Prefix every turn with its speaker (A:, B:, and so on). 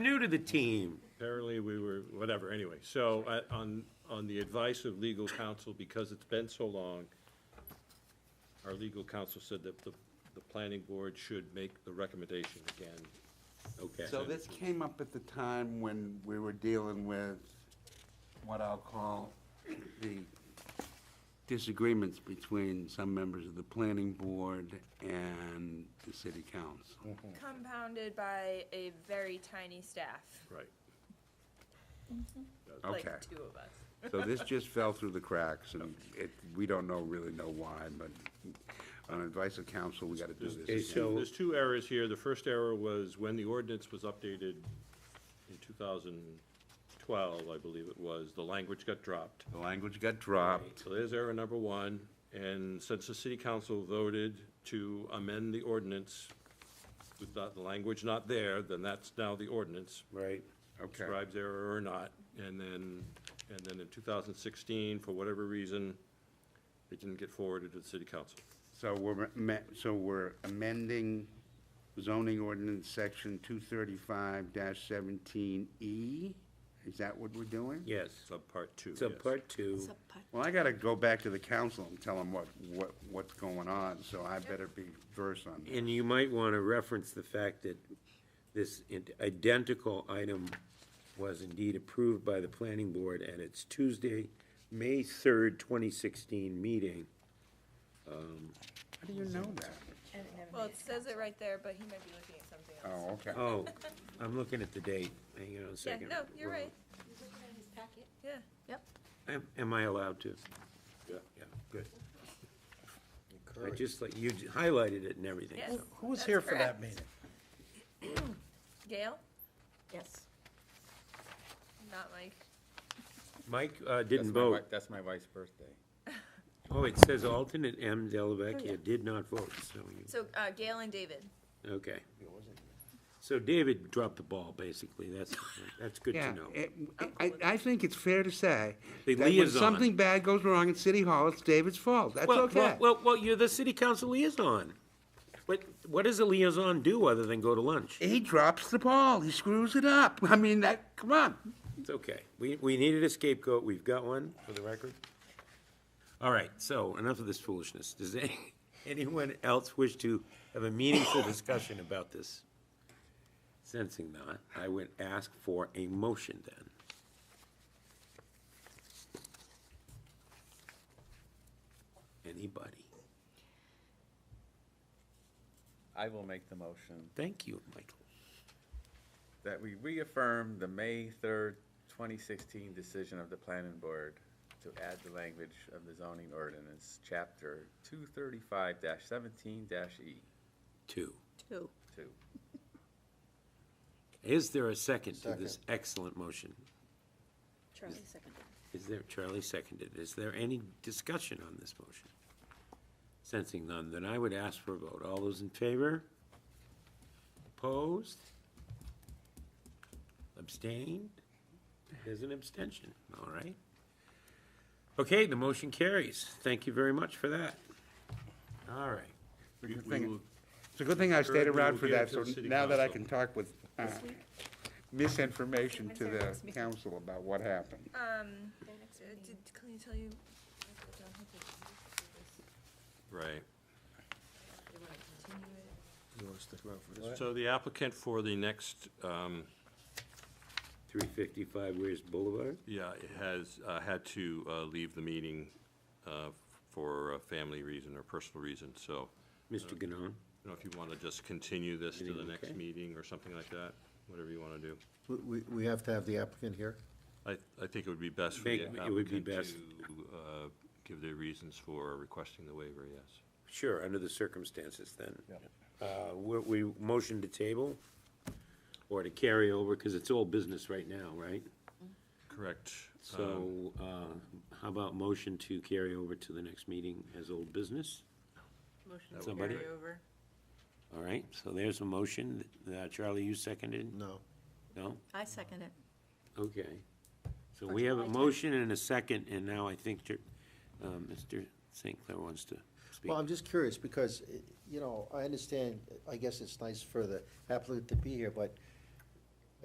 A: new to the team.
B: Apparently, we were, whatever, anyway, so, uh, on, on the advice of legal counsel, because it's been so long, our legal counsel said that the, the planning board should make the recommendation again, okay?
C: So this came up at the time when we were dealing with what I'll call the disagreements between some members of the planning board and the city council.
D: compounded by a very tiny staff,
B: Right,
D: like
C: Okay,
D: two of us.
C: so this just fell through the cracks, and it, we don't know, really know why, but on advice of council, we gotta do
A: Okay,
C: this.
A: so,
B: there's two errors here, the first error was when the ordinance was updated in two thousand twelve, I believe it was, the language got dropped.
C: The language got dropped.
B: So there's error number one, and since the city council voted to amend the ordinance with not- the language not there, then that's now the ordinance,
A: right,
C: Okay.
B: scribes error or not. And then, and then in 2016, for whatever reason, it didn't get forwarded to the city council.
C: So we're, ma- so we're amending zoning ordinance section two thirty-five seventeen E? Is that what we're doing?
A: yes.
B: Subpart two,
A: So
B: yes.
A: part two,
C: Well, I gotta go back to the council and tell them what, what, what's going on, so I better be versed on that.
A: and you might want to reference the fact that this id- identical item was indeed approved by the planning board at its Tuesday, May third, twenty sixteen meeting.
C: How do you know that?
D: Well, it says it right there, but he might be looking at something else.
C: Oh, okay.
A: Oh, I'm looking at the date, hang on a
D: Yeah,
A: second.
D: no, you're right, yeah.
A: Am, am I allowed to?
B: Yeah.
A: Yeah, good. I just, like, you j- highlighted it and everything,
D: Yes.
A: so.
E: Who was
D: That's
E: here for that
D: correct.
E: meeting?
D: Gail,
F: Yes.
D: not Mike.
A: Mike, uh,
G: That's
A: didn't
G: my wi-
A: vote.
G: That's my wife's birthday.
A: Oh, it says alternate M.
C: Oh,
F: yeah.
A: Delavecchia did not vote, so you,
D: So, uh, Gail and David.
A: okay. So David dropped the ball, basically, that's, that's good to
C: Yeah,
A: know.
C: it- I, I think it's fair to say
A: The
C: that when
A: liaison.
C: something bad goes wrong at City Hall, it's David's fault. That's
A: Well,
C: okay.
A: well, well, well, you're the city council liaison. What, what does a liaison do other than go to lunch?
C: He drops the ball, he screws it up. I mean, that, come on.
A: It's okay. We, we needed a scapegoat. We've got one, for the record. All right, so enough of this foolishness. Does any- anyone else wish to have a meaningful discussion about this? Sensing not, I would ask for a motion then. Anybody?
G: I will make the motion
A: Thank you, Michael.
G: that we reaffirm the May third, twenty sixteen decision of the planning board to add the language of the zoning ordinance, chapter two thirty-five seventeen E
A: Two.
F: Two.
G: two.
A: Is there a second to this excellent motion?
F: Charlie seconded.
A: Is there, Charlie seconded, is there any discussion on this motion? Sensing none, then I would ask for a vote. All those in favor? Opposed? Abstained? There's an abstention, all right. Okay, the motion carries. Thank you very much for that. All right.
B: We- we
C: thing.
B: will-
C: It's a good thing I stayed
B: Third, we
C: around
B: will
C: for
B: give it
C: that,
B: to
C: so
B: the city
C: now that I
B: council.
C: can talk with uh, misinformation to
F: When's our
C: the
F: next meeting?
C: council about what happened.
D: Um, uh, did Colleen tell you?
B: Right.
E: You wanna stick around for this?
B: So the applicant for the next, um,
A: Three fifty-five Weir's Boulevard?
B: yeah, has, uh, had to uh, leave the meeting uh, for a family reason or personal reason, so
A: Mr. Ganon?
B: I don't know if you want to just continue this to the
A: Meeting,
B: next
A: okay.
B: meeting or something like that, whatever you want to do.
E: We, we- we have to have the applicant here?
B: I, I think it would be best for
A: Make-
B: the
A: it would be
B: applicant
A: best.
B: to uh, give their reasons for requesting the waiver, yes.
A: Sure, under the circumstances then. Uh, we, we motion to table or to carry over, because it's all business right now, right?
B: Correct. Um,
A: So, uh, how about motion to carry over to the next meeting as old business?
F: Motion
A: to Somebody? carry
F: over.
A: All right, so there's a motion. Uh, Charlie, you seconded?
E: No.
A: No?
F: I second it.
A: Okay. So we have a motion and a second, and now I think, Jer- uh, Mr. St. Clair wants to speak.
E: Well, I'm just curious, because, eh, you know, I understand, I guess it's nice for the applicant to be here, but